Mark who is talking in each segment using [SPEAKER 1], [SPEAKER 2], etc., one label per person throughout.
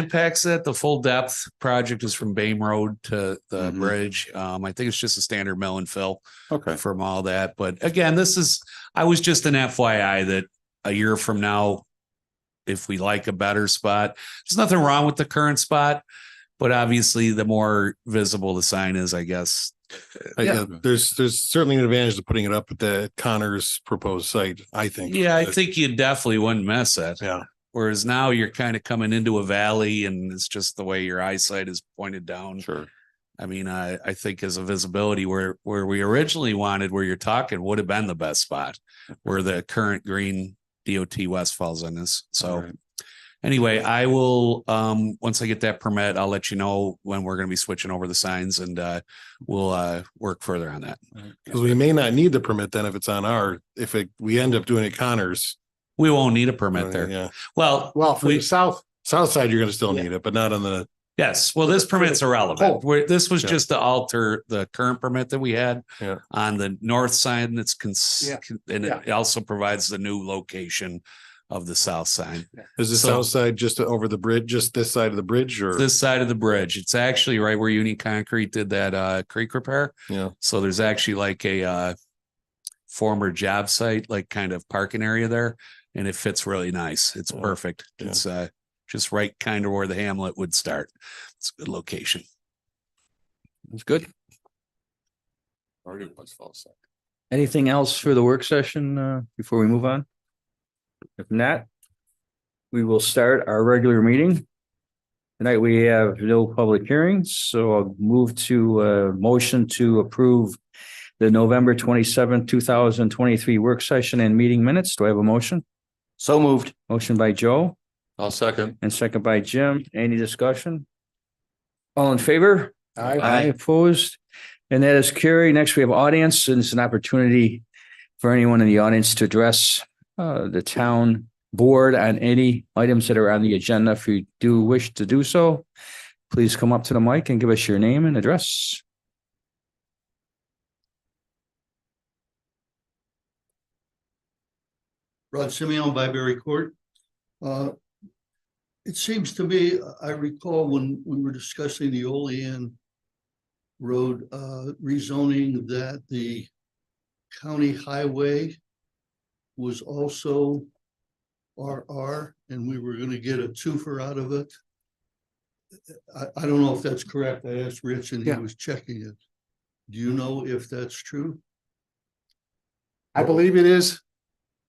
[SPEAKER 1] impacts it. The full depth project is from Bame Road to the
[SPEAKER 2] Mhm.
[SPEAKER 1] bridge. Um, I think it's just a standard mill and fill
[SPEAKER 2] Okay.
[SPEAKER 1] from all that. But again, this is, I was just an FYI that a year from now, if we like a better spot, there's nothing wrong with the current spot. But obviously, the more visible the sign is, I guess.
[SPEAKER 3] I-
[SPEAKER 1] Yeah.
[SPEAKER 3] uh, There's, there's certainly an advantage to putting it up at the Connors proposed site, I think.
[SPEAKER 1] Yeah, I
[SPEAKER 3] That-
[SPEAKER 1] think you definitely wouldn't miss it.
[SPEAKER 3] Yeah.
[SPEAKER 1] Whereas now you're kind of coming into a valley and it's just the way your eyesight is pointed down.
[SPEAKER 2] Sure.
[SPEAKER 1] I mean, I, I think as a visibility where, where we originally wanted, where you're talking would have been the best spot where the current green DOT West falls on this. So
[SPEAKER 2] Alright.
[SPEAKER 1] anyway, I will, um, once I get that permit, I'll let you know when we're going to be switching over the signs and, uh, we'll, uh, work further on that.
[SPEAKER 3] Cause we may not need the permit then if it's on our, if it, we end up doing it Connors.
[SPEAKER 1] We won't need a permit there.
[SPEAKER 3] Yeah.
[SPEAKER 1] Well,
[SPEAKER 3] Well, for
[SPEAKER 1] We-
[SPEAKER 3] the south, south side, you're gonna still need it, but not on the,
[SPEAKER 1] Yes, well, this permit's
[SPEAKER 3] Oh.
[SPEAKER 1] irrelevant. Where this was
[SPEAKER 3] Yeah.
[SPEAKER 1] just to alter the current permit that we had.
[SPEAKER 3] Yeah.
[SPEAKER 1] On the north side and it's cons-
[SPEAKER 4] Yeah.
[SPEAKER 1] con- and it also provides the new location of the south side.
[SPEAKER 3] is the
[SPEAKER 1] So-
[SPEAKER 3] south side just over the bridge, just this side of the bridge or?
[SPEAKER 1] This side of the bridge, it's actually right where Union Concrete did that uh creek repair.
[SPEAKER 3] Yeah.
[SPEAKER 1] So there's actually like a uh former job site, like kind of parking area there, and it fits really nice. It's
[SPEAKER 3] Yeah.
[SPEAKER 1] perfect.
[SPEAKER 3] Yeah.
[SPEAKER 1] It's uh just right kind of where the hamlet would start. It's a good location.
[SPEAKER 2] It's good.
[SPEAKER 5] Anything else for the work session uh, before we move on? If not, we will start our regular meeting. Tonight, we have no public hearings, so I'll move to a motion to approve the November twenty-seventh, two thousand twenty-three work session and meeting minutes. Do I have a motion?
[SPEAKER 2] So moved.
[SPEAKER 5] Motion by Joe
[SPEAKER 2] I'll second.
[SPEAKER 5] and second by Jim. Any discussion? All in favor? I
[SPEAKER 2] Aye.
[SPEAKER 5] Opposed? And that is carried. Next, we have audience, and it's an opportunity for anyone in the audience to address uh, the town board on any items that are on the agenda. If you do wish to do so, please come up to the mic and give us your name and address.
[SPEAKER 6] Rod Simeon, Byberry Court. Uh, It seems to me, I recall when we were discussing the Olean Road uh, rezoning that the county highway was also RR and we were going to get a twofer out of it. I, I don't know if that's correct. I asked Rich and he
[SPEAKER 4] Yeah.
[SPEAKER 6] was checking it. Do you know if that's true?
[SPEAKER 4] I believe it is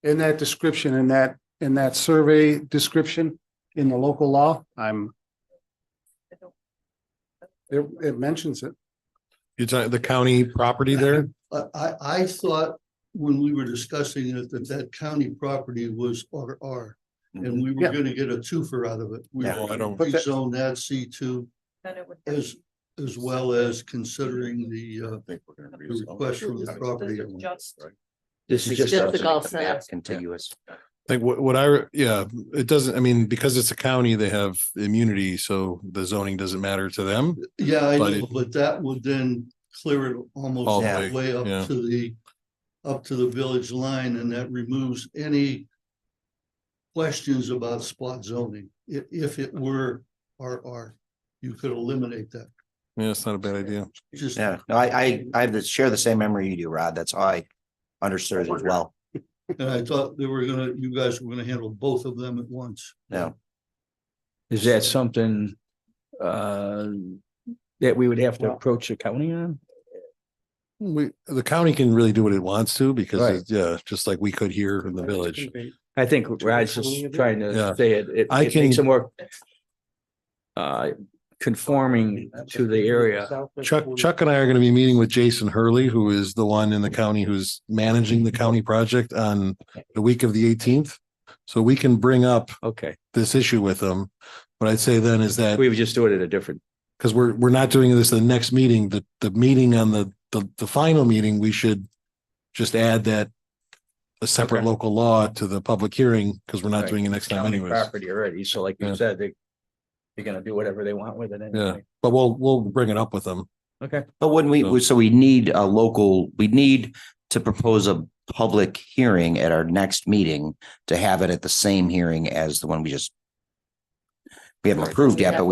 [SPEAKER 4] in that description, in that, in that survey description in the local law, I'm. It, it mentions it.
[SPEAKER 3] You're talking the county property there?
[SPEAKER 6] I, I, I thought when we were discussing it, that that county property was RR. And we were
[SPEAKER 4] Yeah.
[SPEAKER 6] gonna get a twofer out of it. We
[SPEAKER 3] Yeah. Oh, I don't-
[SPEAKER 4] But that-
[SPEAKER 6] rezoned that C two as, as well as considering the, uh,
[SPEAKER 2] think we're gonna
[SPEAKER 6] the request from the property. owner.
[SPEAKER 5] This is
[SPEAKER 7] Just the
[SPEAKER 5] just,
[SPEAKER 7] golf site.
[SPEAKER 2] Contiguous.
[SPEAKER 3] Like what, what I, yeah, it doesn't, I mean, because it's a county, they have immunity, so the zoning doesn't matter to them.
[SPEAKER 6] Yeah, I
[SPEAKER 3] But
[SPEAKER 6] know,
[SPEAKER 3] it-
[SPEAKER 6] but that would then clear it almost
[SPEAKER 3] All
[SPEAKER 6] all
[SPEAKER 3] the
[SPEAKER 6] the
[SPEAKER 3] way,
[SPEAKER 6] way up
[SPEAKER 3] yeah.
[SPEAKER 6] to the, up to the village line and that removes any questions about spot zoning. If, if it were RR, you could eliminate that.
[SPEAKER 3] Yeah, it's not a bad idea.
[SPEAKER 6] Just
[SPEAKER 8] Yeah, no, I, I, I have the, share the same memory you do, Rod. That's how I understood it as well.
[SPEAKER 6] And I thought they were gonna, you guys were gonna handle both of them at once.
[SPEAKER 8] No,
[SPEAKER 5] is that something uh, that we would have to approach the county on?
[SPEAKER 3] We, the county can really do what it wants to because,
[SPEAKER 5] Right.
[SPEAKER 3] it's- yeah, just like we could here in the village.
[SPEAKER 5] I think Rod's just trying
[SPEAKER 3] Yeah.
[SPEAKER 5] to say it, it
[SPEAKER 3] I
[SPEAKER 5] it makes
[SPEAKER 3] can-
[SPEAKER 5] it more uh, conforming to the area.
[SPEAKER 3] Chuck, Chuck and I are going to be meeting with Jason Hurley, who is the one in the county who's managing the county project on the week of the eighteenth. So we can bring up
[SPEAKER 5] Okay,
[SPEAKER 3] this issue with them. What I'd say then is that,
[SPEAKER 5] we would just do it at a different,
[SPEAKER 3] because we're, we're not doing this the next meeting, the, the meeting on the, the, the final meeting, we should just add that a separate
[SPEAKER 5] Okay.
[SPEAKER 3] local law to the public hearing, because we're not
[SPEAKER 5] Right.
[SPEAKER 3] doing it next time
[SPEAKER 5] county
[SPEAKER 3] anyways.
[SPEAKER 5] property already, so like
[SPEAKER 3] Yeah.
[SPEAKER 5] you said, they they're gonna do whatever they want with it anyway.
[SPEAKER 3] But we'll, we'll bring it up with them.
[SPEAKER 5] Okay,
[SPEAKER 8] but wouldn't
[SPEAKER 3] No.
[SPEAKER 8] we, so we need a local, we need to propose a public hearing at our next meeting to have it at the same hearing as the one we just we haven't approved yet, but